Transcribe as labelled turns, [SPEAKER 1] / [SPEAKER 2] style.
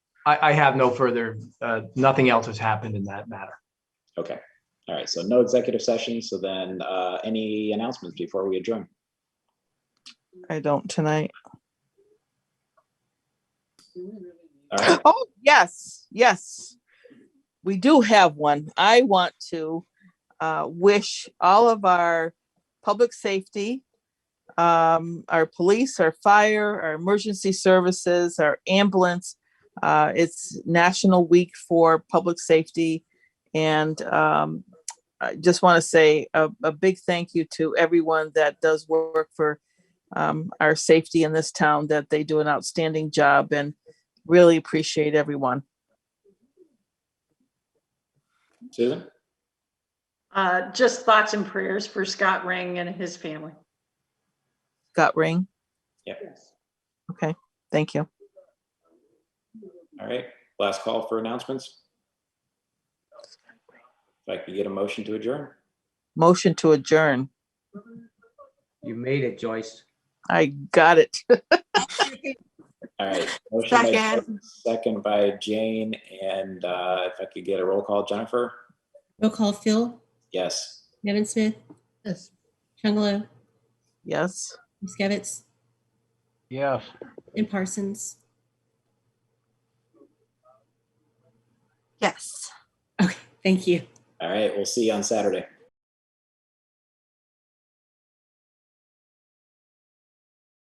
[SPEAKER 1] I, I have no further, uh, nothing else has happened in that matter.
[SPEAKER 2] Okay. All right. So no executive session. So then uh, any announcements before we adjourn?
[SPEAKER 3] I don't tonight.
[SPEAKER 2] All right.
[SPEAKER 3] Oh, yes, yes. We do have one. I want to uh, wish all of our public safety, um, our police, our fire, our emergency services, our ambulance. Uh, It's National Week for Public Safety. And um, I just want to say a, a big thank you to everyone that does work for um, our safety in this town, that they do an outstanding job. And really appreciate everyone.
[SPEAKER 2] Susan?
[SPEAKER 4] Uh, just thoughts and prayers for Scott Ring and his family.
[SPEAKER 3] Got ring.
[SPEAKER 2] Yep.
[SPEAKER 3] Thank you.
[SPEAKER 2] All right. Last call for announcements. If I could get a motion to adjourn.
[SPEAKER 3] Motion to adjourn.
[SPEAKER 5] You made it, Joyce.
[SPEAKER 3] I got it.
[SPEAKER 2] All right. Motion by Joyce, Second by Jane. And uh, if I could get a roll call, Jennifer?
[SPEAKER 6] Roll call Phil,
[SPEAKER 2] Yes.
[SPEAKER 6] Nevin Smith. Yes. Chungalo,
[SPEAKER 3] Yes.
[SPEAKER 6] Miskevitz,
[SPEAKER 7] Yes.
[SPEAKER 6] and Parsons.
[SPEAKER 8] Yes.
[SPEAKER 6] Okay, thank you.
[SPEAKER 2] All right. We'll see you on Saturday.